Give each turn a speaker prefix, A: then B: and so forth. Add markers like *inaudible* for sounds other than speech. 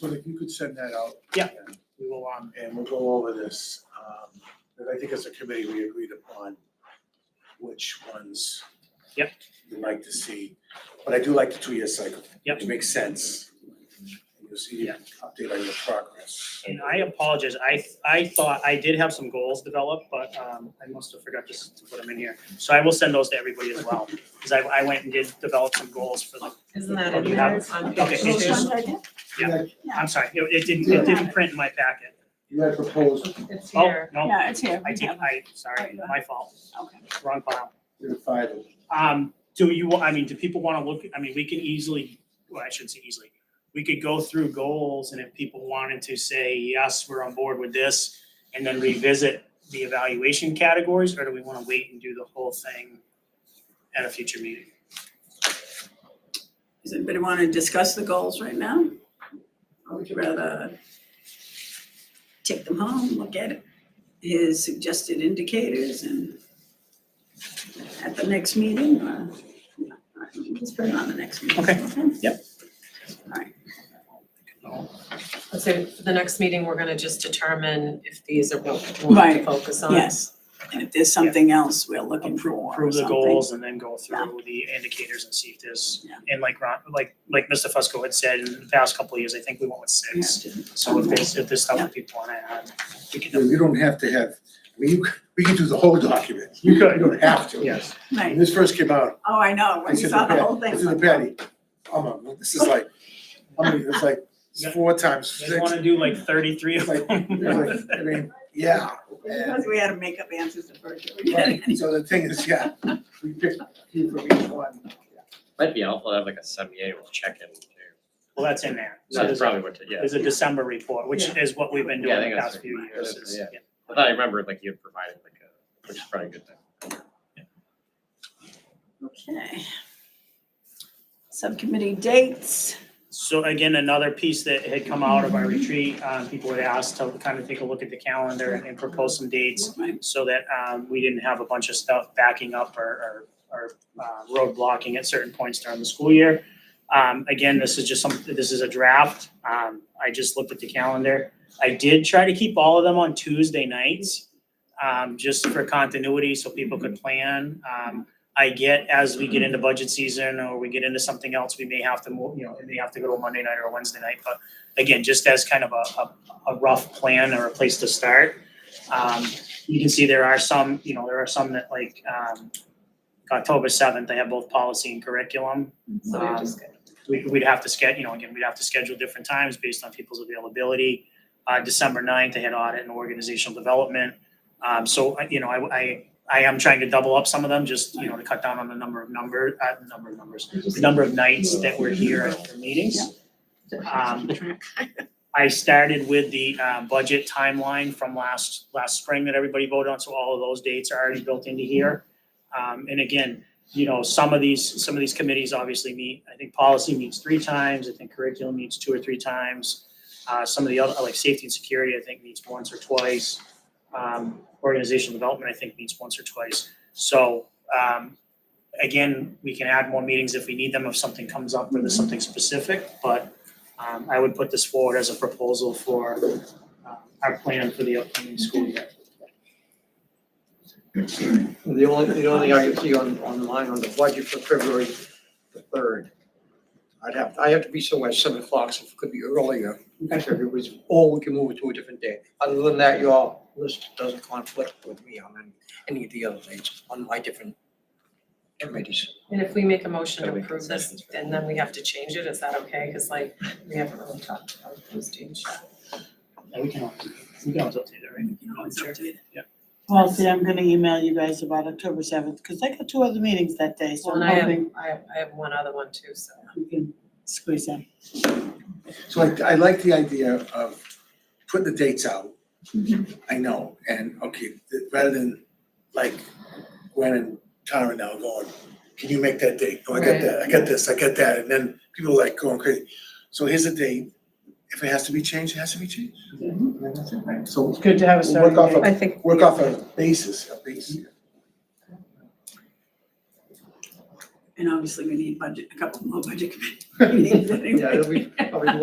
A: But if you could send that out.
B: Yeah.
A: and-
B: We will, um,
A: And we'll go over this, um, but I think as a committee, we agreed upon which ones.
B: Yep.
A: You'd like to see, but I do like the two-year cycle.
B: Yep.
A: It makes sense. You'll see,
B: Yeah.
A: update on your progress.
B: and I apologize, I, I thought, I did have some goals developed, but, um, I must have forgot to, s- to put them in here. So I will send those to everybody as well, because I, I went and did develop some goals for the,
C: Isn't that
B: Oh,
C: in
B: you have
C: yours on
B: Okay,
C: page
B: it's
C: two?
B: just-
A: Yeah.
B: I'm sorry, it, it didn't, it didn't print in my packet.
A: You had proposed,
C: It's
B: Oh,
C: here.
B: no,
D: Yeah, it's here.
B: I did, I, sorry, my fault,
D: Okay.
B: wrong file.
A: you had five of them.
B: Um, do you, I mean, do people wanna look, I mean, we can easily, well, I shouldn't say easily. We could go through goals and if people wanted to say, yes, we're on board with this, and then revisit the evaluation categories, or do we wanna wait and do the whole thing at a future meeting?
D: Does anybody want to discuss the goals right now? Or would you rather take them home, look at it, his suggested indicators and at the next meeting or? Let's put it on the next meeting.
B: Okay.
C: I'd say for the next meeting, we're gonna just determine if these are what we want to
D: Right.
C: focus on.
D: Yes, and if there's something else we're looking for
B: Approve,
D: or
B: approve the
D: something.
B: goals and then go through the indicators and see if there's,
D: Yeah.
B: and like Ron, like, like Mr. Fusco had said, in the past couple of years, I think we went with
D: Yeah,
B: six.
D: just-
B: So if there's, if there's stuff that people wanna add, we
A: You
B: can,
A: know, you don't have to have, I mean, you, we can do the whole document.
B: You could.
A: You don't have to.
B: yes,
A: When
D: Right,
A: this first came out,
D: oh, I know,
A: I
D: when you
A: said
D: saw
A: to
D: the whole
A: Patty,
D: thing.
A: I said to Patty, I'm, a- this is like, I mean, it's like four times
B: you
A: six.
B: guys wanna do like thirty-three of
A: It's like,
B: them?
A: it's like, I mean, yeah.
D: *laughs*
A: and-
D: Because we had to make up answers to virtual.
A: Right, so the thing is, yeah, we picked a few from each one.
E: Might be helpful to have like a semi-annual check-in too.
B: Well, that's in there. So
E: That's
B: there's a,
E: probably what, to- yeah.
B: there's a December report, which is what we've been
E: Yeah, I
B: doing the
E: think that's
B: past few
E: pretty
B: years.
E: much it,
B: is-
E: yeah.
B: yeah.
E: I thought I remembered like you had provided like a, which is probably a good thing.
D: Okay. Subcommittee dates.
B: So again, another piece that had come out of our retreat, um, people had asked to kind of take a look at the calendar and propose some dates
D: Right.
B: so that, um, we didn't have a bunch of stuff backing up or, or, or, uh, road blocking at certain points during the school year. Um, again, this is just some, this is a draft. Um, I just looked at the calendar. I did try to keep all of them on Tuesday nights, um, just for continuity, so people could plan. Um, I get as we get into budget season or we get into something else, we may have to move, you know, we may have to go to a Monday night or a Wednesday night, but again, just as kind of a, a, a rough plan or a place to start. Um, you can see there are some, you know, there are some that like, um, October seventh, they have both policy and curriculum. Um,
C: So we're just gonna-
B: We, we'd have to sched, you know, again, we'd have to schedule different times based on people's availability. Uh, December ninth, they had audit and organizational development. Um, so, I- you know, I, I, I am trying to double up some of them, just, you know, to cut down on the number of number, uh, number of numbers, the number of nights that we're here for meetings. Um, I started with the, uh, budget timeline from last, last spring that everybody voted on, so all of those dates are already built into here. Um, and again, you know, some of these, some of these committees obviously meet, I think policy meets three times, I think curriculum meets two or three times. Uh, some of the other, like safety and security, I think meets once or twice. Um, organizational development, I think meets once or twice. So, um, again, we can add more meetings if we need them, if something comes up or there's something specific, but, um, I would put this forward as a proposal for, uh, our plan for the upcoming school year.
F: The only, the only thing I can see on, online on the budget for February the third. I'd have, I have to be somewhere at seven o'clock, so if it could be earlier. If it was, or we can move it to a different day. Other than that, your list doesn't conflict with me on any of the other dates on my different committees.
C: And if we make a motion to
E: Gotta make
C: approve this,
E: concessions.
C: and then we have to change it, is that okay? Cause like, we haven't really talked about those change yet.
B: And we can, always- we can always update it, right?
D: You know, it's updated.
G: Well, see, I'm gonna email you guys about October seventh, because I got two other meetings that day, so
C: Well, and I
G: I'm
C: have,
G: hoping
C: I have, I have one other one too, so.
G: we can squeeze in.
A: So I, I like the idea of putting the dates out.
G: Mm-hmm.
A: I know, and okay, th- rather than like Gwen and Tara now going, can you make that date? Oh, I got
C: Right.
A: that, I got this, I got that, and then people like going crazy. So here's the date, if it has to be changed, it has to be changed. And then that's it, right? So
G: Mm-hmm. It's good to have a
A: We'll work
G: starting
A: off
G: date.
A: I
C: think.
A: work off a basis, a basis.
D: And obviously, we need budget, a couple more budget committee meetings anyway.
C: *laughs*
F: *laughs* Yeah, it'll be probably